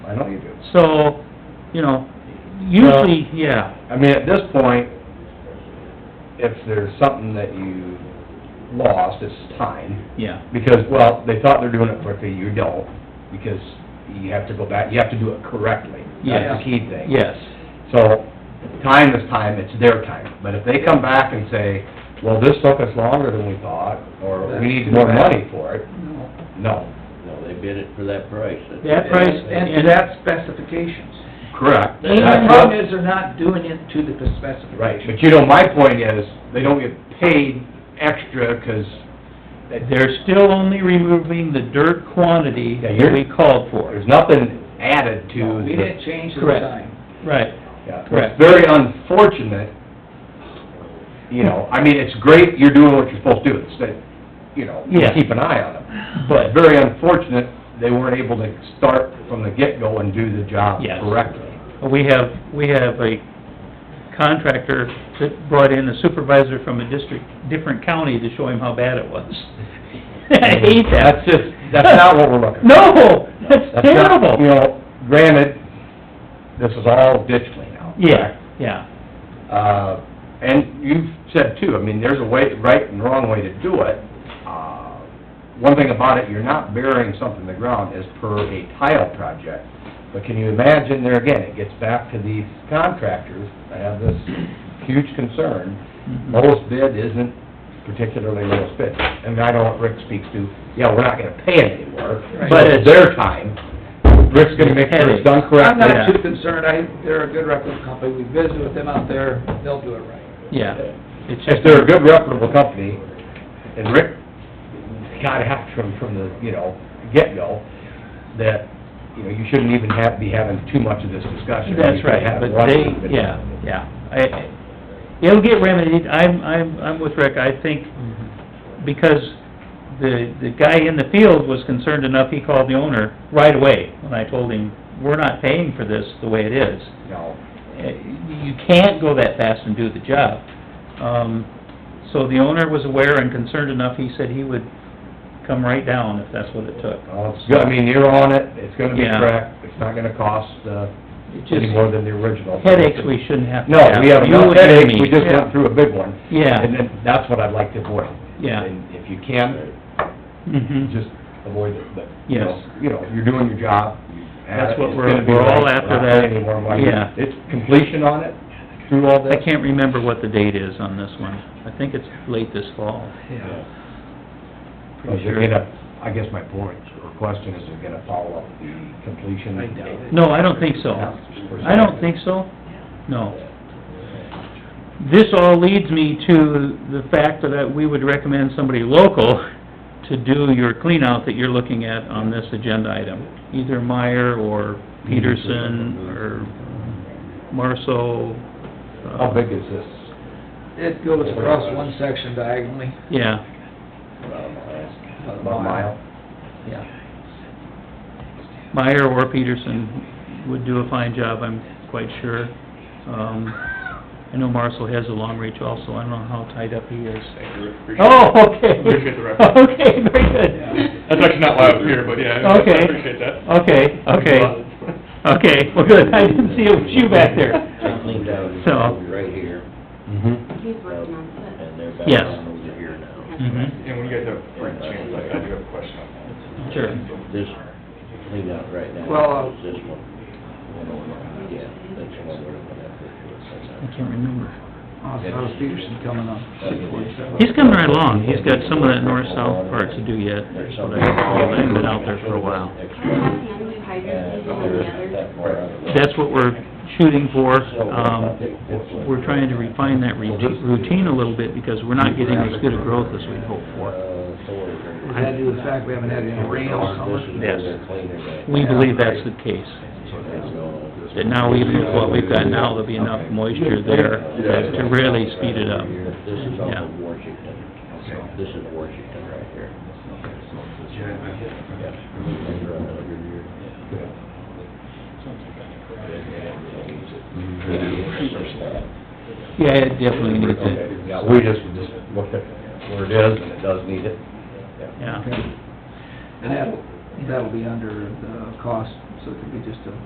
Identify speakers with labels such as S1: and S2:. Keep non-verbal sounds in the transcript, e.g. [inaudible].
S1: I know you do.
S2: So, you know, usually, yeah,
S1: I mean, at this point, if there's something that you lost, it's time.
S2: yeah,
S1: Because, well, they thought they're doing it quickly, you don't, because you have to go back, you have to do it correctly. That's the
S2: yes,
S1: key thing.
S2: yes,
S1: So, time is time, it's their time. But if they come back and say, well, this took us longer than we thought, or we need more money for it,
S3: No,
S1: no.
S4: No, they bid it for that price. That's-
S2: That price
S3: and to that specifications.
S1: Correct.
S3: And
S4: That's
S3: the
S4: what-
S3: problem is they're not doing it to the specifications.
S1: Right, but you know, my point is, they don't get paid extra, 'cause
S2: they're still only removing the dirt quantity
S1: Yeah,
S2: that
S1: you're-
S2: we called for,
S1: there's nothing added to
S3: We
S1: the
S3: didn't change the
S2: Correct.
S3: time.
S2: right,
S1: Yeah,
S2: Correct.
S1: it's very unfortunate, you know, I mean, it's great you're doing what you're supposed to do, it's that, you know, you
S2: Yeah.
S1: keep an eye on them.
S2: But-
S1: But very unfortunate, they weren't able to start from the get-go and do the job
S2: Yes.
S1: correctly.
S2: We have, we have a contractor that brought in a supervisor from a district, different county to show him how bad it was. [laughs] [laughs] I hate that.
S1: Mm-hmm. That's just,
S2: [laughs]
S1: that's not what we're looking for.
S2: No, that's
S1: That's not- You
S2: terrible.
S1: know, granted, this is all ditch clean out.
S2: Yeah, yeah,
S1: Uh, and you've said too, I mean, there's a way, right and wrong way to do it. Uh, One thing about it, you're not burying something in the ground as per a tile project. But can you imagine there again, it gets back to these contractors, I have this huge concern.
S2: Mhm.
S1: Lowest bid isn't particularly lowest bid. And I know what Rick speaks to, yeah, we're not gonna pay it anymore,
S3: Right.
S1: but it's their time. Rick's gonna make sure it's done
S3: I'm
S1: correctly.
S3: not too concerned, I, they're a good record company, we visit with them out there, they'll do it right.
S2: yeah. It's
S1: If they're a good reputable company, and Rick got it from, from the, you know, get-go, that, you know, you shouldn't even have, be having too much of this discussion.
S2: That's
S1: You could
S2: right,
S1: have
S2: but
S1: one
S2: they,
S1: meeting.
S2: yeah, yeah. I- I- It'll get remedied, I'm, I'm, I'm with Rick, I think, because the, the guy in the field was concerned enough, he called the owner right away when I told him, we're not paying for this the way it is.
S1: No,
S2: Uh, You can't go that fast and do the job. Um, so the owner was aware and concerned enough, he said he would come right down if that's what it took.
S1: well, it's good, I mean, you're on it, it's gonna be
S2: Yeah.
S1: correct, it's not gonna cost, uh,
S2: It
S1: any
S2: just,
S1: more than the original.
S2: headaches we shouldn't have to
S1: No,
S2: have.
S1: we have
S2: You
S1: no
S2: and
S1: headaches,
S2: me.
S1: we just
S3: Yeah.
S1: went through a big one.
S2: Yeah.
S1: And then, that's what I'd like to avoid.
S2: Yeah.
S1: And if you can,
S2: Mhm.
S1: just avoid it, but, you
S2: Yes.
S1: know, you know, you're doing your job. you have
S2: That's
S1: it,
S2: what
S1: it's
S2: we're-
S1: gonna be
S2: we're all
S1: right,
S2: after
S1: we're not
S2: that.
S1: paying any more money.
S2: Yeah.
S1: It's completion on it, through all
S2: I
S1: this.
S2: can't remember what the date is on this one. I think it's late this fall,
S3: Yeah.
S1: Is
S2: pretty
S1: it
S2: sure.
S1: gonna, I guess my point or question is, is it gonna follow up the completion?
S3: I doubt it.
S2: No, I don't think so. I don't think so, no. This all leads me to the fact that we would recommend somebody local to do your cleanout that you're looking at on this agenda item. Either Meyer or Peterson or Marso. uh,
S1: Mm-hmm. How big is this?
S3: It goes across one section diagonally,
S2: Yeah,
S1: About
S3: a
S1: a mile?
S3: yeah.
S2: Meyer or Peterson would do a fine job, I'm quite sure. Um, I know Marcel has a long reach also, I don't know how tied up he is.
S5: Thank you, appreciate it.
S2: Oh, okay.
S5: Appreciate the reference.
S2: Okay, very good.
S5: That's actually not live here, but yeah, I
S2: Okay.
S5: appreciate that.
S2: Okay, okay,
S5: [laughs]
S2: okay, well, good, I didn't see it was you back there.
S4: I cleaned out, it's
S2: So-
S4: right here,
S1: Mm-hmm.
S6: He's working on it.
S4: and they're back
S2: Yes.
S4: on over here now.
S2: Mhm.
S5: And when you guys have a break chance, I I do have a question on that.
S2: Sure.
S4: This cleaned out right now.
S3: Well, uh,
S4: is This one. Yeah, that's the one we're looking at
S2: I
S4: for
S2: can't remember.
S3: Awesome, how's Peterson Uh, coming up? Six forty-seven.
S2: He's coming right along, he's got some of that north-south part to do yet,
S4: There's
S2: but
S4: something.
S2: I- I've been out there for a while.
S6: I have him do hydrants and the other.
S2: That's what we're shooting for, um, we're trying to refine that routine routine a little bit, because we're not getting as good a growth as we'd hoped for.
S4: Uh,
S3: Is that due to the fact we haven't had any rain all summer?
S2: Yes. We believe that's the case. that now even with what we've got now, there'll be enough moisture there to- to really speed it up.
S4: This is off
S2: Yeah.
S4: of Washington. This is Washington right here.
S2: Yeah, it definitely needs it,
S1: Okay, yeah, we just, just looked at where it is, and it does need it.
S2: yeah.
S3: And that'll, that'll be under the cost, so it could be just a